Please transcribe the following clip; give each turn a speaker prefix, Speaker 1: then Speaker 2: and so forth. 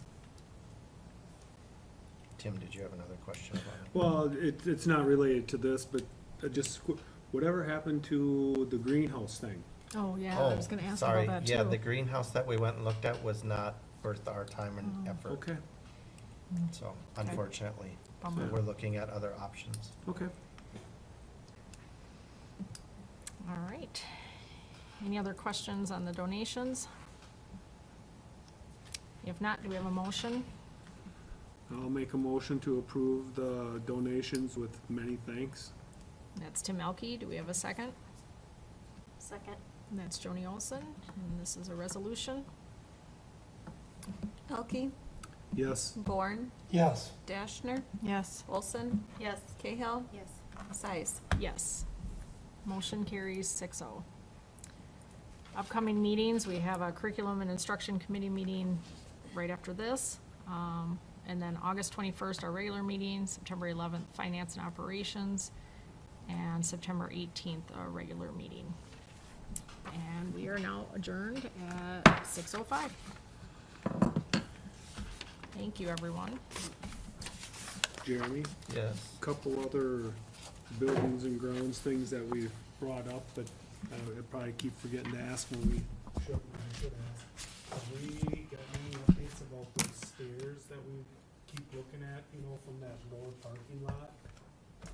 Speaker 1: Tim, did you have another question about it?
Speaker 2: Well, it, it's not related to this, but I just, qu- whatever happened to the greenhouse thing?
Speaker 3: Oh, yeah, I was
Speaker 1: Oh,
Speaker 3: gonna ask
Speaker 1: sorry.
Speaker 3: about that too.
Speaker 1: Yeah, the greenhouse that we went and looked at was not worth our time and
Speaker 3: Oh.
Speaker 1: effort.
Speaker 2: Okay,
Speaker 1: So unfortunately,
Speaker 3: Bummer.
Speaker 1: we're looking at other options.
Speaker 2: okay.
Speaker 3: All right. Any other questions on the donations? If not, do we have a motion?
Speaker 2: I'll make a motion to approve the donations with many thanks.
Speaker 3: That's Tim Elke. Do we have a second?
Speaker 4: Second.
Speaker 3: And that's Joni Olson, and this is a resolution.
Speaker 4: Elke,
Speaker 2: Yes,
Speaker 4: Born,
Speaker 1: Yes.
Speaker 4: Dashner,
Speaker 3: Yes.
Speaker 4: Olson. Yes. Cahill,
Speaker 5: Yes.
Speaker 4: Size.
Speaker 3: Yes. Motion carries six oh. Upcoming meetings, we have a curriculum and instruction committee meeting right after this. Um, and then August twenty-first, our regular meeting, September eleventh, finance and operations, and September eighteenth, our regular meeting. And we are now adjourned at six oh five. Thank you, everyone.
Speaker 2: Jeremy?
Speaker 1: Yes.
Speaker 2: couple other buildings and grounds things that we brought up, but I would probably keep forgetting to ask when we,
Speaker 6: Should, I should ask, have we got any updates about those stairs that we keep looking at, you know, from that lower parking lot?